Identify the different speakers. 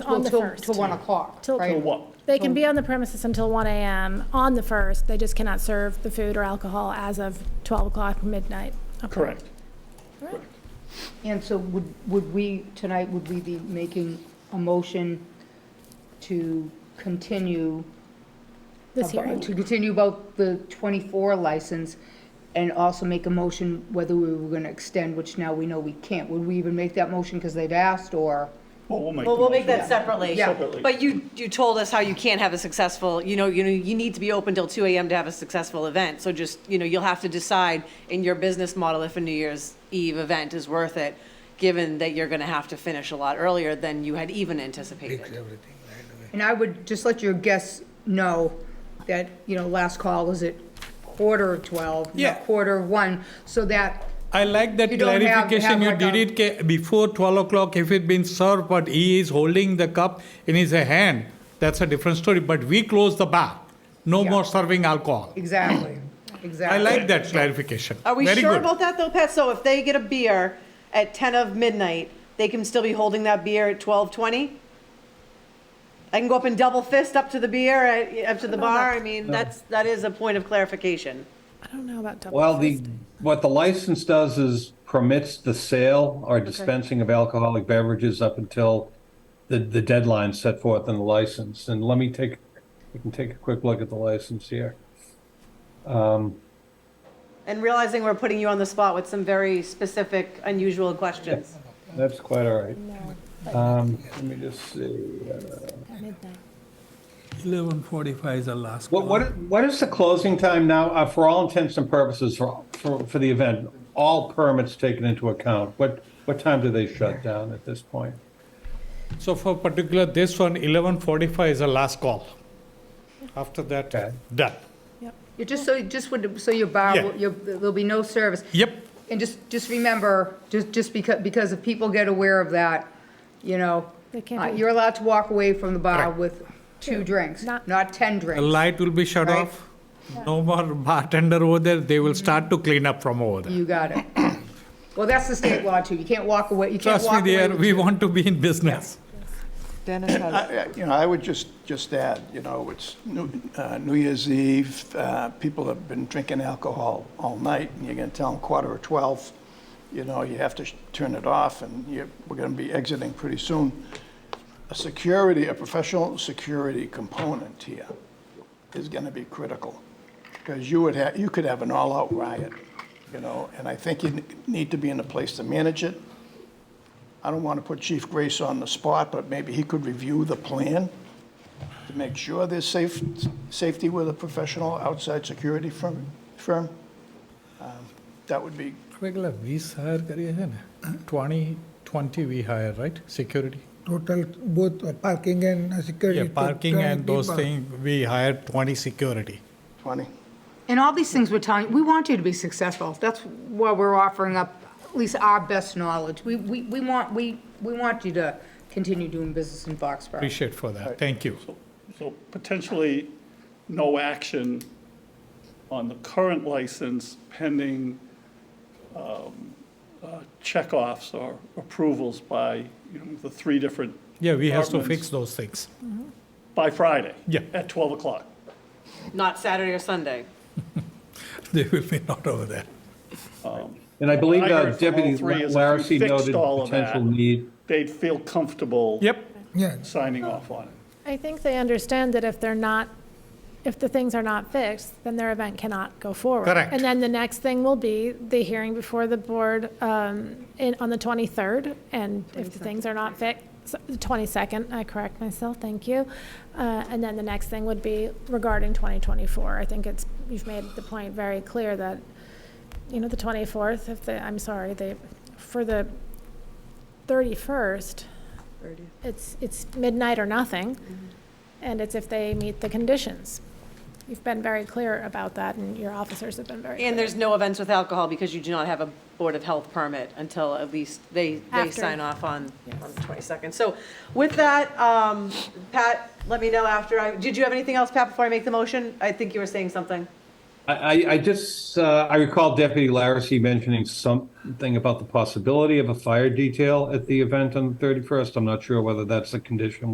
Speaker 1: on
Speaker 2: Well,
Speaker 1: the
Speaker 2: till-
Speaker 1: 1st.
Speaker 2: Till 1 o'clock,
Speaker 1: Till-
Speaker 2: right?
Speaker 1: Till
Speaker 3: what?
Speaker 1: They can be on the premises until 1 AM on the 1st. They just cannot serve the food or alcohol as of 12 o'clock midnight. Okay.
Speaker 3: Correct.
Speaker 2: And so would, would we, tonight, would we be making a motion to continue?
Speaker 1: This
Speaker 2: about-
Speaker 1: hearing.
Speaker 2: To continue about the 24 license and also make a motion whether we were going to extend, which now we know we can't. Would we even make that motion because they've asked or?
Speaker 3: Well, we'll make.
Speaker 4: Well,
Speaker 3: the
Speaker 4: we'll make
Speaker 3: motion.
Speaker 4: that separately.
Speaker 2: Yeah.
Speaker 3: Separately.
Speaker 4: But you, you told us how you can't have a successful, you know, you know, you need to be open till two AM to have a successful event. So just, you know, you'll have to decide in your business model if a New Year's Eve event is worth it, given that you're gonna have to finish a lot earlier than you had even anticipated.
Speaker 5: everything right away.
Speaker 2: And I would just let your guests know that, you know, last call is at quarter of 12,
Speaker 5: Yeah.
Speaker 2: not quarter of 1, so that,
Speaker 5: I like that
Speaker 2: You don't have- have
Speaker 5: clarification, you
Speaker 2: like a-
Speaker 5: did it ca- before twelve o'clock, if it been served, but he is holding the cup in his hand, that's a different story, but we close the bar, no
Speaker 2: Yeah.
Speaker 5: more serving alcohol.
Speaker 2: exactly, exactly.
Speaker 5: I like that clarification.
Speaker 4: Are we
Speaker 5: Very
Speaker 4: sure
Speaker 5: good.
Speaker 4: about that though, Pat? So if they get a beer at ten of midnight, they can still be holding that beer at twelve twenty? I can go up and double fist up to the beer, uh, up to the bar. I mean, that's, that is a point of clarification.
Speaker 1: I don't know about double.
Speaker 6: Well, the,
Speaker 1: fist.
Speaker 6: what the license does is permits the sale or dispensing of alcoholic beverages up until the, the deadline set forth in the license. And let me take, we can take a quick look at the license here.
Speaker 4: And realizing we're putting you on the spot with some very specific, unusual questions.
Speaker 6: That's quite all right.
Speaker 1: No,
Speaker 6: Um, let me just see.
Speaker 1: at midnight.
Speaker 7: 11:45 is the last call.
Speaker 6: What, what, what is the closing time now, uh, for all intents and purposes, for, for, for the event? All permits taken into account. What, what time do they shut down at this point?
Speaker 5: So for particular, this one, eleven forty-five is the last call. After that,
Speaker 6: Okay.
Speaker 5: done.
Speaker 2: You just so, just would, so your bar,
Speaker 5: Yeah.
Speaker 2: will- your- there'll be no service.
Speaker 5: Yep,
Speaker 2: And just, just remember, just, just because, because if people get aware of that, you know,
Speaker 1: They can't
Speaker 2: uh,
Speaker 1: be-
Speaker 2: you're allowed to walk away from the bar
Speaker 5: Correct.
Speaker 2: with two drinks,
Speaker 1: Not-
Speaker 2: not 10
Speaker 5: the
Speaker 2: drinks.
Speaker 5: light will be shut
Speaker 2: Right.
Speaker 5: off, no more bartender over there, they will start to clean up from over there.
Speaker 2: You got it. Well, that's the state law too. You can't walk away, you can't
Speaker 5: Trust me,
Speaker 2: walk away.
Speaker 5: there,
Speaker 2: with
Speaker 5: we
Speaker 2: two-
Speaker 5: want to be in business.
Speaker 4: Dennis has.
Speaker 3: I- I- You know, I would just, just add, you know, it's New uh, New Year's Eve, uh, people have been drinking alcohol all night, and you're going to tell them quarter of 12, you know, you have to sh- turn it off, and you, we're going to be exiting pretty soon. A security, a professional security component here is going to be critical, because you would have, you could have an all-out riot, you know, and I think you n- need to be in a place to manage it. I don't want to put Chief Grace on the spot, but maybe he could review the plan to make sure there's safe, safety with a professional outside security firm. firm. Um, That would be,
Speaker 5: regular વીસ hire કરીએ છે ને twenty twenty we hire right security
Speaker 7: Total, both uh, parking and uh, security. to
Speaker 5: parking
Speaker 7: 20
Speaker 5: and those
Speaker 7: people.
Speaker 5: Thing we hire twenty security
Speaker 3: 20.
Speaker 2: And all these things we're telling, you, we want you to be successful. That's why we're offering up at least our best knowledge. We, we, we want, we, we want you to continue doing business in Foxborough.
Speaker 5: appreciate for that thank you
Speaker 8: So potentially, no action on the current license pending um, uh, checkoffs or approvals by, you know, the three different,
Speaker 5: yeah we have to
Speaker 8: Departments.
Speaker 5: Fix those things
Speaker 8: by Friday?
Speaker 5: Yeah.
Speaker 8: At 12 o'clock.
Speaker 4: Not Saturday or Sunday.
Speaker 5: They will be not over there
Speaker 6: And I believe
Speaker 8: I
Speaker 6: uh,
Speaker 8: heard from all
Speaker 6: Deputy
Speaker 8: three is if
Speaker 6: Larissy
Speaker 8: you fixed
Speaker 6: noted
Speaker 8: all
Speaker 6: the
Speaker 8: of that,
Speaker 6: potential need.
Speaker 8: They'd feel comfortable
Speaker 5: yup
Speaker 7: Yeah,
Speaker 8: signing off on it.
Speaker 1: I think they understand that if they're not, if the things are not fixed, then their event cannot go forward.
Speaker 5: Correct.
Speaker 1: And then the next thing will be the hearing before the board um, in, on the 23rd, and if the things are not fixed, 22nd, I correct myself, thank you. Uh, And then the next thing would be regarding 2024. I think it's, you've made the point very clear that, you know, the 24th, if the, I'm sorry, the, for the 31st, it's, it's midnight or nothing, and it's if they meet the conditions. You've been very clear about that, and your officers have been very clear.
Speaker 4: And there's no events with alcohol because you do not have a Board of Health permit until at least they, they
Speaker 1: After.
Speaker 4: sign off on, on the 22nd. So with that, um, Pat, let me know after I, did you have anything else, Pat, before I make the motion? I think you were saying something.
Speaker 6: I, I- I just, uh, I recall Deputy Larissy mentioning something about the possibility of a fire detail at the event on the 31st. I'm not sure whether that's a condition